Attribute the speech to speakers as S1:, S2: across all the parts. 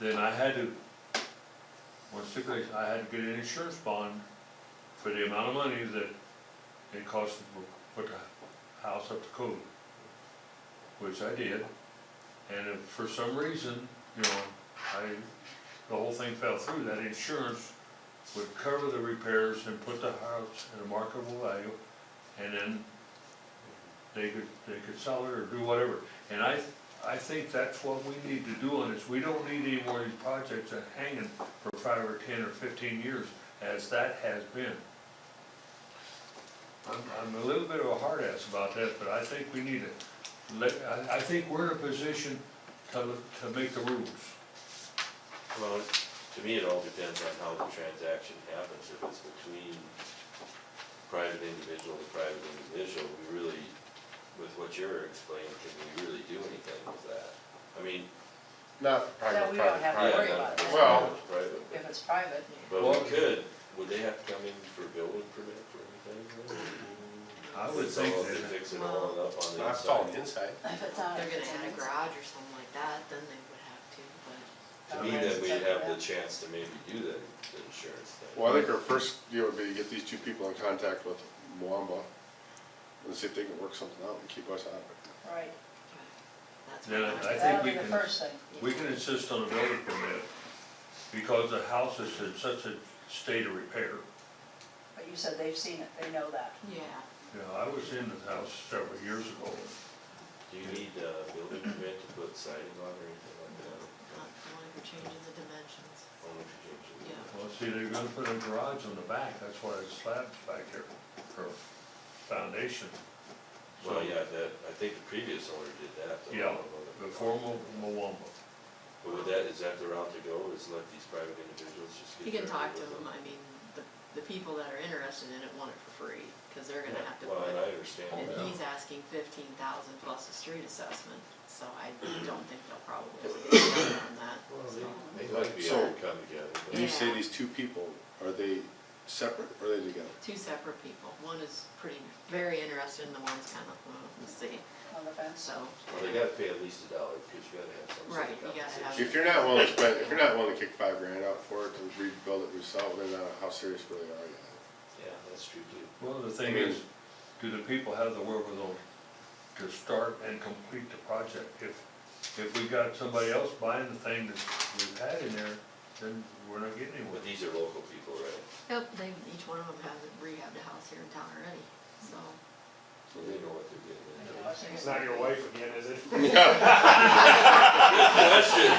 S1: then I had to, one stipulation, I had to get an insurance bond for the amount of money that it cost to put the house up to code, which I did. And if for some reason, you know, I, the whole thing fell through, that insurance would cover the repairs and put the house at a marketable value, and then they could, they could sell it or do whatever. And I, I think that's what we need to do on this, we don't need any more of these projects that hanging for five or ten or fifteen years, as that has been. I'm, I'm a little bit of a hard ass about that, but I think we need to Let, I, I think we're in a position to, to make the rules.
S2: Well, to me, it all depends on how the transaction happens, if it's between private individual to private individual, we really, with what you're explaining, can we really do anything with that? I mean,
S3: Not private,
S4: No, we don't
S3: private,
S4: have to
S2: yeah,
S3: private.
S4: worry about
S2: that's
S4: that.
S3: Well-
S2: private,
S4: If it's private,
S2: but
S1: Well-
S2: we could, would they have to come in for building permit for anything?
S1: I would
S2: It's
S1: think
S2: all-
S1: that-
S2: Fix it all up on the
S3: That's all
S2: inside.
S3: the inside.
S4: if it's on.
S5: They're gonna add a garage or something like that, then they would have to, but
S2: To me, then we'd have the chance to maybe do the, the insurance thing.
S3: Well, I think our first deal would be to get these two people in contact with Moamba and see if they can work something out and keep us out of it.
S4: Right,
S5: that's.
S1: Then I
S5: what I'm-
S1: think
S4: that'll
S1: we
S4: be the
S1: can-
S4: first thing.
S1: We can insist on a building permit, because the house is in such a state of repair.
S4: But you said they've seen it, they know that.
S5: Yeah,
S1: You know, I was in the house several years ago,
S2: Do you need a building permit to put siding on or anything like that?
S5: not the one for changing the dimensions,
S2: Only if you change it.
S5: yeah.
S1: well, see, they're gonna put a garage on the back, that's why it's slabs back there, for foundation.
S2: Well, yeah, that, I think the previous owner did that. though.
S1: Yeah, before Mo- Moamba.
S2: But would that, is that the route to go, is let these private individuals just get?
S5: You can talk to
S2: directly with
S5: them, I mean, the, the people that are interested in it want it for free, cause they're gonna have to
S2: Well, and
S5: put,
S2: I understand
S5: and
S2: that.
S5: he's asking fifteen thousand plus a street assessment, so I don't think they'll probably get done on that,
S2: Well,
S5: so.
S2: they, they might be
S3: So-
S2: able to come together,
S3: When
S2: but
S3: you say
S5: Yeah.
S3: these two people, are they separate or are they together?
S5: Two separate people, one is pretty, very interested and the one's kinda, well, let's see,
S4: On the fence?
S5: so.
S2: well, they gotta pay at least a dollar, because you gotta have some sort
S5: Right,
S2: of
S5: you gotta have-
S2: compensation.
S3: If you're not willing to spend, if you're not willing to kick five grand out for it to rebuild it yourself, then uh, how serious really are you?
S2: Yeah, that's true too.
S1: Well, the thing is, do the people have the wherewithal to start and complete the project? If, if we got somebody else buying the thing that we've had in there, then we're not getting anywhere.
S2: But these are local people, right?
S5: Yep, they, each one of them has rehabbed a house here in town already, so.
S2: So they know what they're getting into.
S6: It's not your wife again, is it?
S2: Question.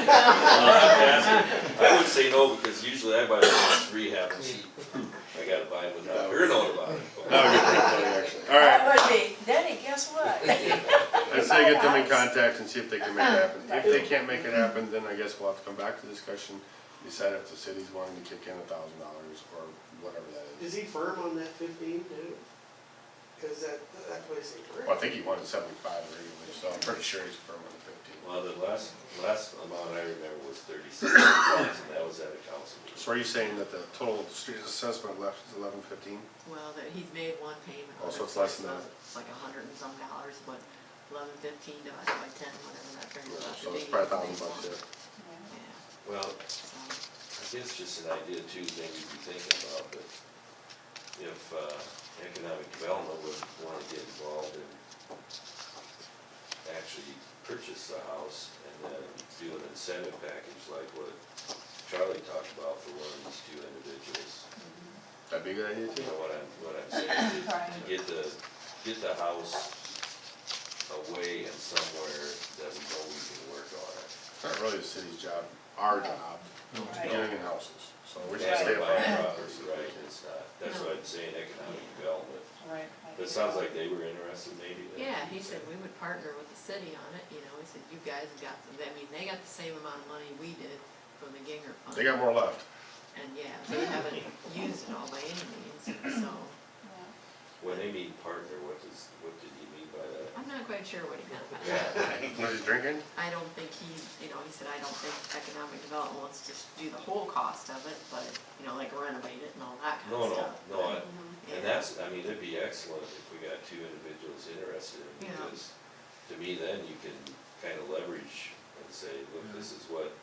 S2: I would say no, because usually I buy them rehab cheap. I gotta buy them without her knowing about it.
S3: That would be pretty funny, actually. All right,
S4: That would be, Denny, guess what?
S3: I'd say get them in contact and see if they can make it happen. If they can't make it happen, then I guess we'll have to come back to discussion, decide if the city's wanting to kick in a thousand dollars or whatever that is.
S7: Is he firm on that fifteen too? Cause that, that place ain't
S3: Well, I
S7: great.
S3: think he wanted seventy-five originally, so I'm pretty sure he's firm on the fifteen.
S2: Well, the last, last amount I remember was thirty-six thousand, that was at a council
S3: So
S2: meeting.
S3: are you saying that the total street assessment left is eleven fifteen?
S5: Well, that, he's made one payment.
S3: Oh,
S5: on
S3: so
S5: it,
S3: it's less than
S5: it's
S3: that.
S5: It's like a hundred and some dollars, but eleven fifteen divided by ten, whatever that turns out to
S3: So it's
S5: be,
S3: probably a
S5: they
S3: thousand bucks there.
S5: want-
S4: Yeah.
S5: Yeah,
S2: Well,
S5: so,
S2: I guess just an idea too, maybe to be thinking about, but if, uh, economic development would wanna get involved in actually purchase the house and then do an incentive package like what Charlie talked about for one of these two individuals.
S3: That'd be a good idea too.
S2: You know what I'm, what I'm saying, to- to
S4: Right.
S2: get the, get the house away and somewhere that we know we can work on it.
S3: It's not really the city's job, our job,
S1: No.
S3: to
S4: Right.
S3: get in houses, so we
S2: Not
S3: just stay
S2: buying
S3: up front.
S2: property, Right, it's not, that's what I'm saying, economic development,
S4: Right.
S2: but it sounds like they were interested maybe. then.
S5: yeah, he said we would partner with the city on it, you know, he said, you guys have got, the- I mean, they got the same amount of money we did from the Ginger Fund.
S3: They got more left.
S5: And yeah, they haven't used it all by any means, so,
S2: When they mean partner, what does, what did you mean by that?
S5: I'm not quite sure what he meant by that.
S3: Was he drinking?
S5: I don't think he, you know, he said, I don't think economic development wants to do the whole cost of it, but, you know, like renovate it and all that kind
S2: No,
S5: of
S2: no,
S5: stuff.
S2: no, I-
S5: Yeah.
S2: and that's, I mean, it'd be excellent if we got two individuals interested, in it,
S5: Yeah.
S2: because to me then you can kind of leverage and say, look, this is what